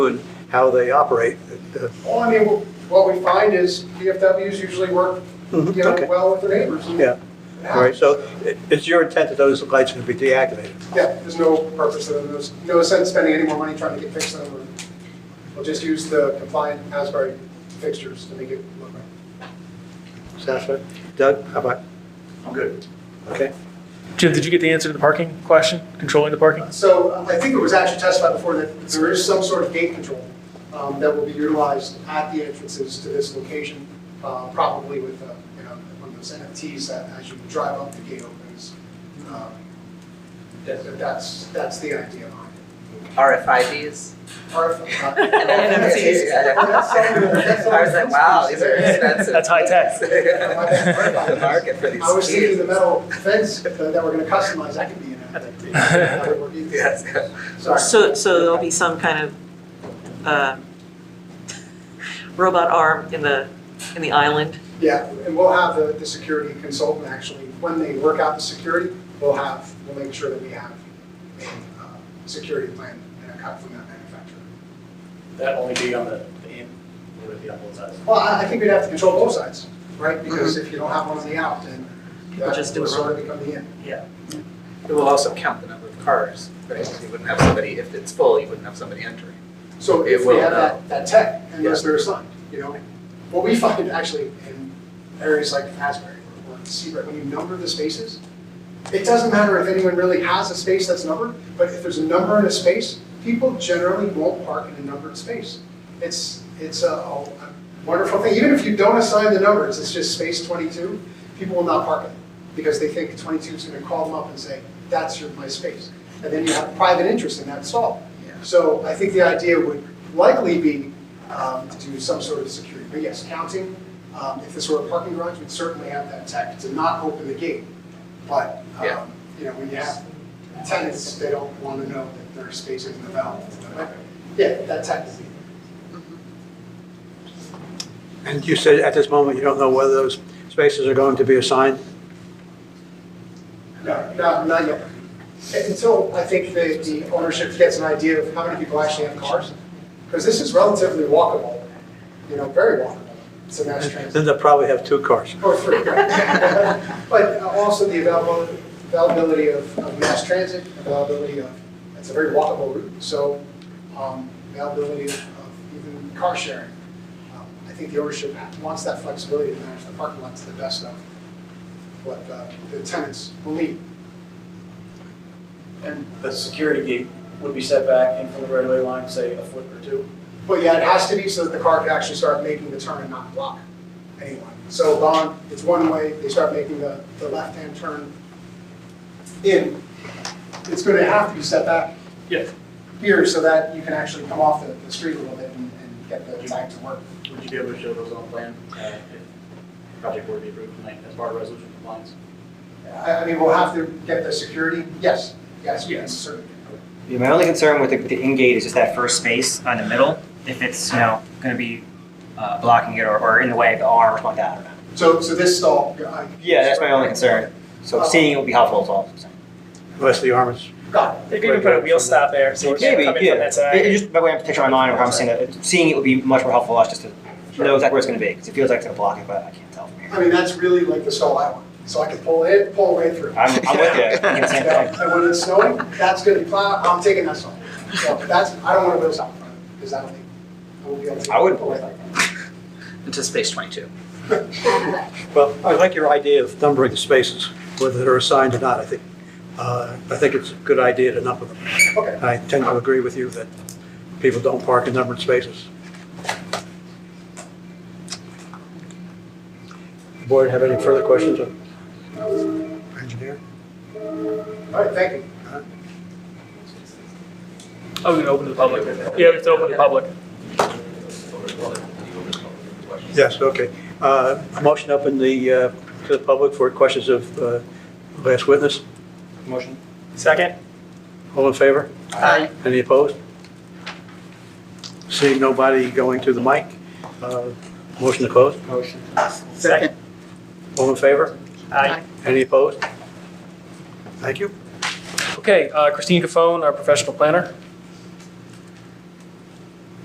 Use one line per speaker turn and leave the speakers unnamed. and how they operate. Uh,
Well, I mean, what we find is VFWs usually work,
Mhm,
you know,
okay.
well with their neighbors. and-
Yeah, all right, so i- it's your intent that those lights are going to be deactivated?
Yeah, there's no purpose in them, there's no sense spending any more money trying to get fix them, or we'll just use the compliant Asbury fixtures to make it look right.
Satisfied? Doug, how about,
I'm good.
okay?
Jim, did you get the answer to the parking question, controlling the parking?
So um, I think it was actually testified before that there is some sort of gate control um, that will be utilized at the entrances to this location, uh, probably with, uh, you know, one of those NFTs that as you drive up, the gate opens. Um, that- That's, that's the idea behind it.
RFIDs.
RF, uh,
And NFTs.
That's all-
I was like, wow, these are expensive.
That's high tech.
The market for these.
I was thinking the
keys.
metal fence that that we're gonna customize, that could be an NFT. That would work either.
Yes.
Sorry.
So, so there'll be some kind of uh, robot arm in the, in the island?
Yeah, and we'll have the, the security consultant actually, when they work out the security, we'll have, we'll make sure that we have a uh, security plan and a cut from that manufacturer.
That only be on the, the in, would it be on both sides?
Well, I, I think we'd have to control both sides, right? Because if you don't have one on the out, then
Mm-hmm. People
that
just do
will
it
sort of become the in.
It will also count the number of cars, right? You wouldn't have somebody, if it's full, you wouldn't have somebody entering.
So
It
if we
will
have
now.
that, that tech, unless they're assigned, you know? What we find actually in areas like Asbury or or Seabright, when you number the spaces, it doesn't matter if anyone really has a space that's numbered, but if there's a number in a space, people generally won't park in a numbered space. It's, it's a- a wonderful thing, even if you don't assign the numbers, it's just space twenty-two, people will not park in it because they think twenty-two is gonna call them up and say, that's your, my space. And then you have private interest in that stall. So I think the idea would likely be um, to do some sort of security, but yes, counting. um, If this were a parking garage, we'd certainly have that tech to not open the gate. But, um,
Yeah.
you know, when you have tenants, they don't want to know that their space isn't available. But, Yeah, that tech is.
And you said at this moment, you don't know whether those spaces are going to be assigned?
No, not, not yet. Until I think the, the ownership gets an idea of how many people actually have cars. Because this is relatively walkable, you know, very walkable to mass transit.
Then they'll probably have two cars.
Or free, right. But also the available- availability of of mass transit, availability of, it's a very walkable route, so um, availability of of even car sharing. Um, I think the ownership wants that flexibility to manage the parking lot to the best of what uh, the tenants will need.
And the security gate would be set back in from the right of way line, say a foot or two.
But yeah, it has to be so that the car can actually start making the turn and not block anyone. So gone, it's one way, they start making the, the left-hand turn in. It's gonna have to be set back
Yeah.
here so that you can actually come off the, the street a little bit and, and get the time to work.
Would you be able to show those on plan, uh, if project were to be approved tonight as part of resolution compliance?
I, I mean, we'll have to get the security, yes, yes, yes, certainly.
Yeah, my only concern with the, with the in-gate is just that first space on the middle, if it's, you know, gonna be, uh, blocking it or, or in the way of the arm or something like that, I don't know.
So, so this stall, I.
Yeah, that's my only concern, so seeing it would be helpful as well.
Unless the armors,
Got it.
They could even put a wheel stop there, so it's
Maybe,
coming from
yeah,
that
It- it
side.
just, by way of picture in my mind, or how I'm seeing it, seeing it would be much more helpful, for us just to know exactly where it's gonna be, cause it feels like it's gonna block it, but I can't tell from here.
I mean, that's really like the stall I want, so I can pull in, pull right through.
I'm, I'm with you, I think it's the same thing.
And when it's snowing, that's gonna be plowed, I'm taking that song. So that's, I don't wanna wheel stop in front of it, because I don't think, I won't be able to.
I wouldn't
pull
pull
it
it
Into space twenty-two.
well, I like your idea of numbering the spaces, whether they're assigned or not, I think. Uh, I think it's a good idea to number them.
Okay.
I tend to agree with you that people don't park in numbered spaces. Board, have any further questions of engineer?
All right, thank you.
Oh, we can open to the public. Yeah, we have to open to the public.
Yes, okay. Uh, Motion up in the, uh, to the public for questions of uh, last witness.
Motion?
Second?
All in favor?
Aye.
Any opposed? Seeing nobody going to the mic, uh, motion to close.
Motion.
Second.
All in favor?
Aye.
Any opposed? Thank you.
Okay, uh, Christine Cafone, our professional planner.